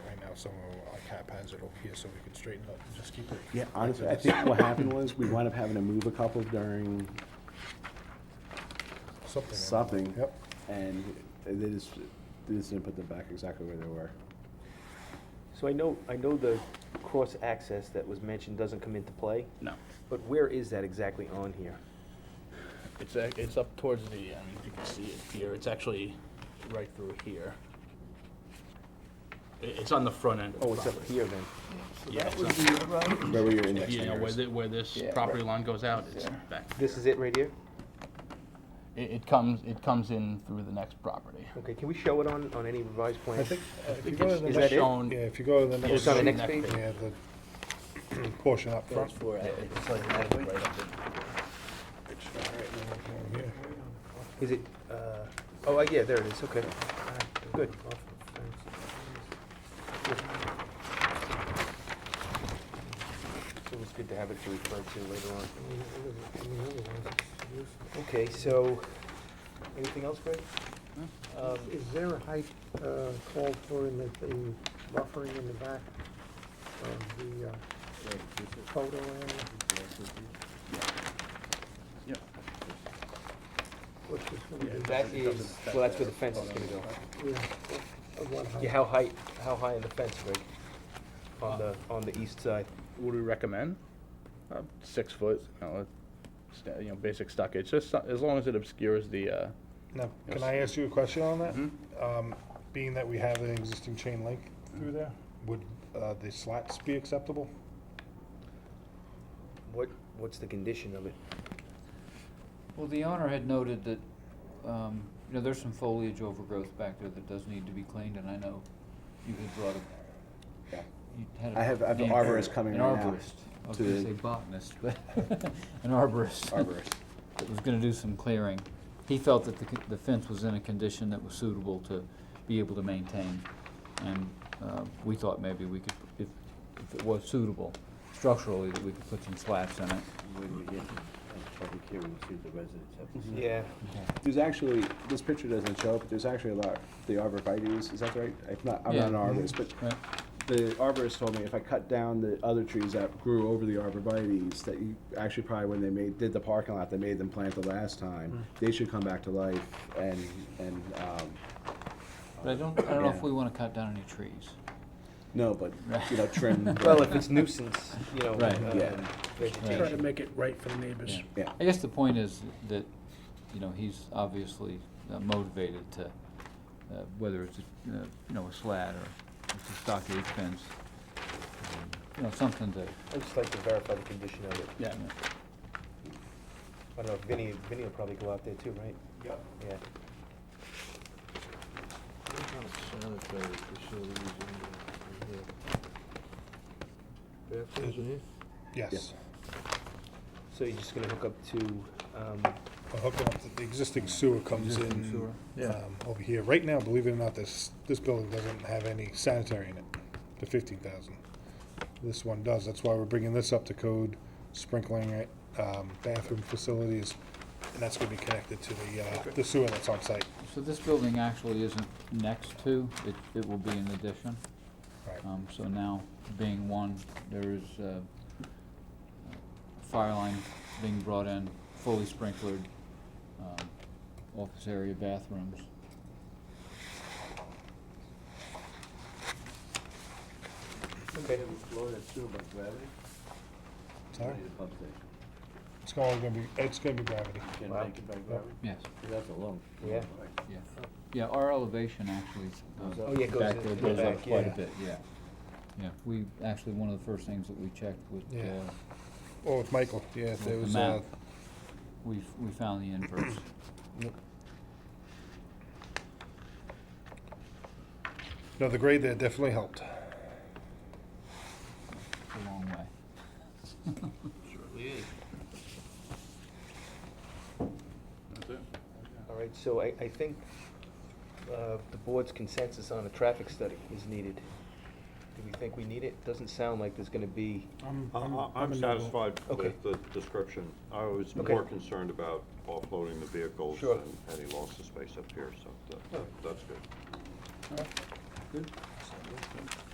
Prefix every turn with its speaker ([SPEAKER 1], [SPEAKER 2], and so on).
[SPEAKER 1] some of like haphazard over here so we can straighten up, and just keep it.
[SPEAKER 2] Yeah, honestly, I think what happened was, we wound up having to move a couple during
[SPEAKER 1] Something.
[SPEAKER 2] something.
[SPEAKER 1] Yep.
[SPEAKER 2] And they just, they just didn't put them back exactly where they were.
[SPEAKER 3] So I know, I know the cross-access that was mentioned doesn't come into play,
[SPEAKER 4] No.
[SPEAKER 3] but where is that exactly on here?
[SPEAKER 4] It's, ac- it's up towards the, I mean, if you can see it here, it's actually right through here. I- It's on the front end of the
[SPEAKER 3] Oh, it's
[SPEAKER 4] property.
[SPEAKER 3] up here then.
[SPEAKER 4] Yeah, it's up-
[SPEAKER 2] Where were your index
[SPEAKER 4] you know, where
[SPEAKER 2] fingers?
[SPEAKER 4] the, where this
[SPEAKER 3] Yeah,
[SPEAKER 4] property
[SPEAKER 3] right.
[SPEAKER 4] line goes out, it's back.
[SPEAKER 3] This is it right here?
[SPEAKER 4] It, it comes, it comes in through the next property.
[SPEAKER 3] Okay, can we show it on, on any revised plan?
[SPEAKER 1] I think, uh, if you
[SPEAKER 4] think
[SPEAKER 1] go to
[SPEAKER 4] it's-
[SPEAKER 1] the
[SPEAKER 4] it's
[SPEAKER 1] next, yeah,
[SPEAKER 4] shown-
[SPEAKER 1] if you go to the next.
[SPEAKER 3] It's on the
[SPEAKER 4] shown
[SPEAKER 3] next
[SPEAKER 4] that
[SPEAKER 3] page?
[SPEAKER 4] big.
[SPEAKER 1] Yeah, the portion up front.
[SPEAKER 4] for, it's like right up there.
[SPEAKER 1] Yeah.
[SPEAKER 3] Is it, uh, oh, uh, yeah, there it is, okay. Good. It was good to have it to refer to later on. Okay, so, anything else, Greg? Um,
[SPEAKER 5] Is there a height uh, called for in the, the buffering in the back of the uh, photo area?
[SPEAKER 4] Yep.
[SPEAKER 5] Which is gonna be,
[SPEAKER 3] That is, well, that's where the fence is gonna go.
[SPEAKER 5] yeah, of what height?
[SPEAKER 3] Yeah, how high, how high in the fence, Greg? On the, on the east side?
[SPEAKER 4] Would we recommend? Uh, six foot, you know, it's, uh, you know, basic stockage, just so- as long as it obscures the, uh,
[SPEAKER 1] Now,
[SPEAKER 4] Yes.
[SPEAKER 1] can I ask you a question on that? Um, being that we have an existing chain link through there, would, uh, the slats be acceptable?
[SPEAKER 3] What, what's the condition of it?
[SPEAKER 6] Well, the owner had noted that, um, you know, there's some foliage overgrowth back there that does need to be cleaned, and I know you had brought a,
[SPEAKER 2] Yeah.
[SPEAKER 6] you had a.
[SPEAKER 2] I have- I have an
[SPEAKER 6] name-
[SPEAKER 2] arborist coming right now
[SPEAKER 6] An arborist, I was
[SPEAKER 2] to
[SPEAKER 6] gonna
[SPEAKER 2] the-
[SPEAKER 6] say botanist, but, an arborist.
[SPEAKER 2] Arborist.
[SPEAKER 6] That was gonna do some clearing. He felt that the, c- the fence was in a condition that was suitable to be able to maintain, and, uh, we thought maybe we could, if, if it was suitable structurally, that we could put some slats in it.
[SPEAKER 7] When we get a public hearing, see the residents have to say.
[SPEAKER 3] Yeah,
[SPEAKER 2] There's actually, this picture doesn't show, but there's actually a lot, the arborvitae's, is that right? If not, I'm not an
[SPEAKER 6] Yeah.
[SPEAKER 2] arborist, but
[SPEAKER 6] Right.
[SPEAKER 2] the arborist told me if I cut down the other trees that grew over the arborvitae's, that you, actually probably when they made, did the parking lot, they made them plant the last time, they should come back to life and, and, um,
[SPEAKER 6] But I don't, I don't know if
[SPEAKER 2] Yeah.
[SPEAKER 6] we wanna cut down any trees.
[SPEAKER 2] no, but, you know, trim. the-
[SPEAKER 3] well, if it's nuisance, you know,
[SPEAKER 6] Right.
[SPEAKER 3] uh,
[SPEAKER 2] Yeah.
[SPEAKER 3] vegetation.
[SPEAKER 6] to
[SPEAKER 8] make it right for the neighbors.
[SPEAKER 2] Yeah.
[SPEAKER 6] I guess the point is that, you know, he's obviously uh, motivated to, uh, whether it's, a, uh, you know, a slat or it's a stockade fence, um, you know, something to,
[SPEAKER 3] I'd just like to verify the condition of it.
[SPEAKER 4] yeah,
[SPEAKER 3] I don't know, if Vinny, Vinny will probably go out there too, right?
[SPEAKER 1] Yep.
[SPEAKER 3] Yeah.
[SPEAKER 7] Sanitary facilities in the, in the bathrooms in here?
[SPEAKER 3] Mm-hmm.
[SPEAKER 1] Yes.
[SPEAKER 3] So you're just gonna hook up to, um,
[SPEAKER 1] We're hooking up, the- the existing sewer comes in, um, over here. Right now, believe it or not, this, this building doesn't have any sanitary in it, the fifteen thousand. This one does, that's why we're bringing this up to code, sprinkling it, um, bathroom facilities, and that's gonna be connected to the, uh, the sewer that's on site.
[SPEAKER 6] so this building actually isn't next to, it, it will be in addition.
[SPEAKER 1] Right.
[SPEAKER 6] Um, so now, being one, there is, uh, fire line being brought in, fully sprinklered, um, office area bathrooms.
[SPEAKER 3] okay,
[SPEAKER 7] Flow that sewer by gravity?
[SPEAKER 1] Sorry?
[SPEAKER 7] Need a pump station.
[SPEAKER 1] It's going to be, it's gonna be gravity.
[SPEAKER 7] Can
[SPEAKER 3] Wow.
[SPEAKER 7] make it by gravity?
[SPEAKER 6] Yes,
[SPEAKER 7] That's a long.
[SPEAKER 3] Yeah.
[SPEAKER 6] yeah. Yeah, our elevation actually,
[SPEAKER 7] Goes
[SPEAKER 6] uh,
[SPEAKER 7] up.
[SPEAKER 3] Oh, yeah, it goes
[SPEAKER 6] back
[SPEAKER 3] in-
[SPEAKER 6] there
[SPEAKER 3] in the
[SPEAKER 6] goes up
[SPEAKER 3] back,
[SPEAKER 6] quite a
[SPEAKER 3] yeah.
[SPEAKER 6] bit, yeah. Yeah, we, actually, one of the first things that we checked with,
[SPEAKER 1] Yeah.
[SPEAKER 6] uh,
[SPEAKER 1] Oh, with Michael, yeah,
[SPEAKER 6] with
[SPEAKER 1] there
[SPEAKER 6] the
[SPEAKER 1] was, uh,
[SPEAKER 6] map, we, f- we found the inverse.
[SPEAKER 1] no, the grade there definitely helped.
[SPEAKER 6] It's a long way.
[SPEAKER 3] all right, so I, I think, uh, the board's consensus on a traffic study is needed. Do we think we need it? Doesn't sound like there's gonna be,
[SPEAKER 9] I'm, I'm satisfied
[SPEAKER 3] Okay.
[SPEAKER 9] with the description. I was
[SPEAKER 3] Okay.
[SPEAKER 9] more concerned about offloading the vehicles
[SPEAKER 3] Sure.
[SPEAKER 9] and any loss of space up here, so that-
[SPEAKER 3] Yeah.
[SPEAKER 9] that's good.
[SPEAKER 6] Good.